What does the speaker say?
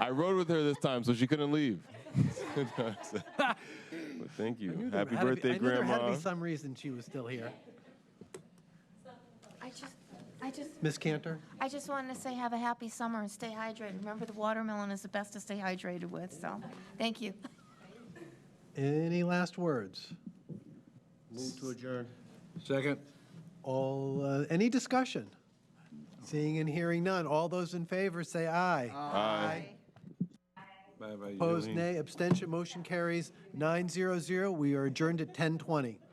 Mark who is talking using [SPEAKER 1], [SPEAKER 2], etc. [SPEAKER 1] I rode with her this time, so she couldn't leave. but thank you.
[SPEAKER 2] There
[SPEAKER 1] Happy
[SPEAKER 2] had to be-
[SPEAKER 1] birthday,
[SPEAKER 2] I knew There had
[SPEAKER 1] Grandma.
[SPEAKER 2] to be some reason she was still here.
[SPEAKER 3] I just, I just,
[SPEAKER 2] Miss Cantor?
[SPEAKER 3] I just wanted to say have a happy summer and stay hydrated. Remember, the watermelon is the best to stay hydrated with, so, thank you.
[SPEAKER 2] Any last words?
[SPEAKER 4] Move to adjourn.
[SPEAKER 5] Second?
[SPEAKER 2] All, uh, any discussion? Seeing and hearing none. All those in favor, say aye.
[SPEAKER 1] Hi.
[SPEAKER 5] Bye-bye.
[SPEAKER 2] Opposed, nay. Abstention, motion carries 900. We are adjourned at 10:20.